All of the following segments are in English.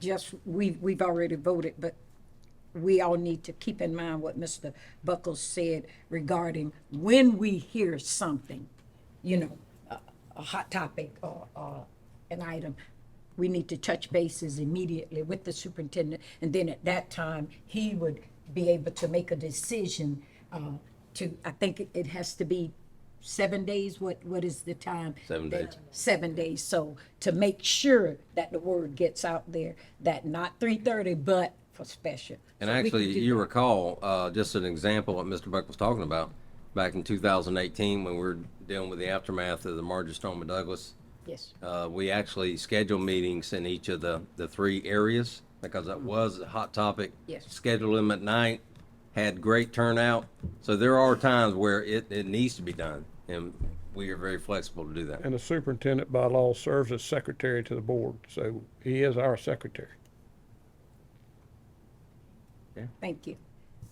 just, we, we've already voted, but we all need to keep in mind what Mr. Buckles said regarding when we hear something, you know, a, a hot topic or, or an item, we need to touch bases immediately with the superintendent, and then at that time, he would be able to make a decision, uh, to, I think it- it has to be seven days, what, what is the time? Seven that- days. Seven days, so to make sure that the word gets out there, that not three thirty, but for special. And So we can actually, do you that. recall, uh, just an example what Mr. Buck was talking about, back in 2018, when we were dealing with the aftermath of the Marjorie Stoneman Douglas, Yes, uh, we actually scheduled meetings in each of the, the three areas, because that was a hot topic. Yes. Scheduled them at night, had great turnout. So there are times where it, it needs to be done, and we are very flexible to do that. And the superintendent by law serves as secretary to the board, so he is our secretary. thank you.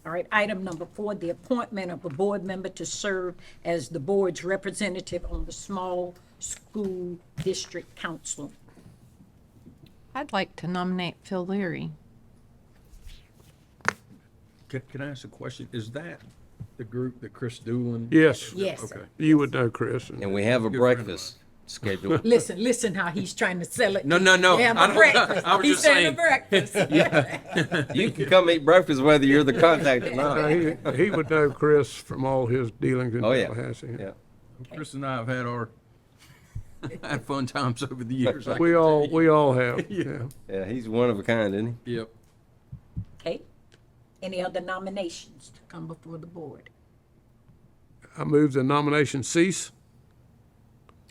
All right, item number four, the appointment of a board member to serve as the board's representative on the small school district council. I'd like to nominate Phil Leary. Can, can I ask a question? Is that the group that Chris Doolin? Yes. Yes. Okay. You would know, Chris. and- And we have a Good friend of breakfast scheduled Listen, listen how he's trying to sell it. No, no, no. Yeah, I don't- breakfast. I was He's just saying a saying. breakfast. You can come eat breakfast whether you're the contact or Uh, not. He, he would know Chris from all his dealings in Oh, yeah. Tallahassee. Yeah. Chris and I have had our, had fun times over the years. I We can all, tell you. we all have, yeah. Yeah, he's one of a kind, isn't he? Yep. Okay, any other nominations to come before the board? I move the nomination cease.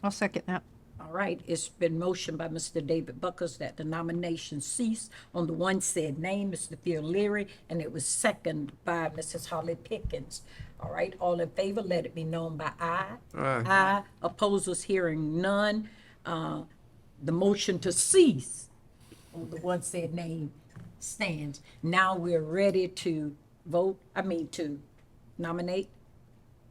I'll second that. All right, it's been motioned by Mr. David Buckles that the nomination cease on the one said name, Mr. Phil Leary, and it was second by Mrs. Holly Pickens. All right, all in favor, let it be known by aye. Aye. Aye, opposers hearing none. Uh, The motion to cease on the one said name stands. Now we're ready to vote, I mean, to nominate,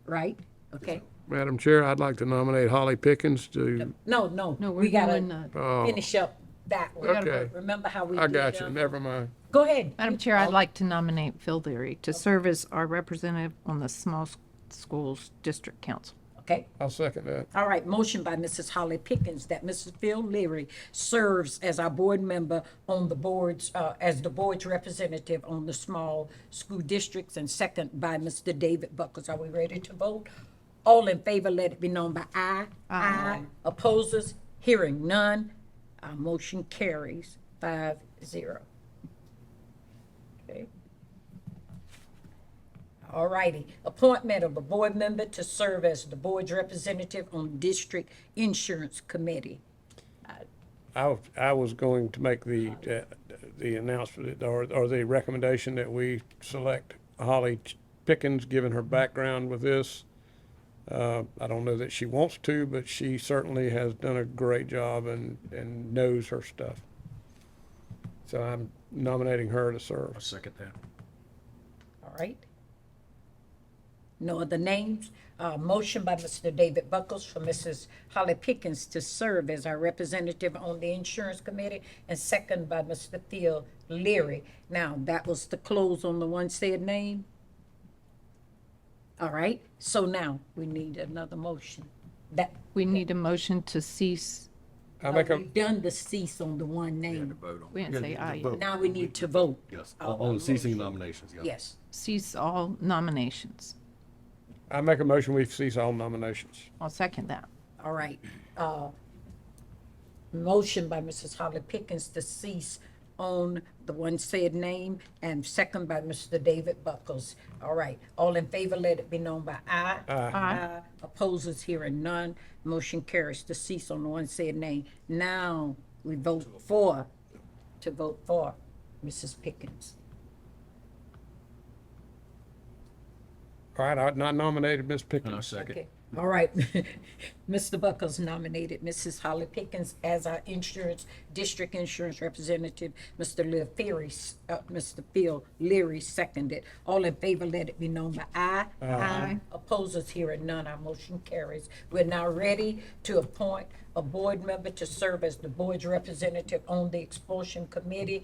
right? Okay, Madam Chair, I'd like to nominate Holly Pickens to, no, no. No, we we're gotta- doing, uh, finish up that way. Oh. Okay. But Remember how we I did got you, them? never mind. Go ahead. Oh, Madam Chair, I'd like to nominate Phil Leary to serve as our representative on the Small S- Schools District Council. Okay, I'll second that. all right, motion by Mrs. Holly Pickens that Mrs. Phil Leary serves as our board member on the boards, uh, as the board's representative on the small school districts, and second by Mr. David Buckles. Are we ready to vote? All in favor, let it be known by aye. Aye. Opposers, hearing none, our motion carries five zero. Okay. All righty, appointment of a board member to serve as the board's representative on District Insurance Committee. I, was- I was going to make the, uh, the announcement or, or the recommendation that we select Holly Pickens, given her background with this. Uh, I don't know that she wants to, but she certainly has done a great job and, and knows her stuff. So I'm nominating her to serve. I second that. All right. No other names. Uh, motion by Mr. David Buckles for Mrs. Holly Pickens to serve as our representative on the insurance committee and second by Mr. Phil Leary. Now, that was the close on the one said name. All right, so now we need another motion. That, We need a motion to cease, I make a, we've done the cease on the one name. Vote on. we didn't say aye, yet. Now we need to vote. Yes, on on ceasing nominations, yeah. Yes. cease all nominations. I make a motion, we cease all nominations. I'll second that. All right. uh, Motion by Mrs. Holly Pickens to cease on the one said name and second by Mr. David Buckles. All right. All in favor, let it be known by aye. Aye. Opposers hearing none. Motion carries to cease on the one said name. Now we vote for, to vote for Mrs. Pickens. All right, I I nominated Ms. And I Pickens. second. Okay. All right. Mr. Buckles nominated Mrs. Holly Pickens as our insurance, district insurance representative. Mr. Lear Ferry, s- uh, Mr. Phil Leary seconded. All in favor, let it be known by aye. Aye. Opposers, here are none. Our motion carries. We're now ready to appoint a board member to serve as the board's representative on the expulsion committee.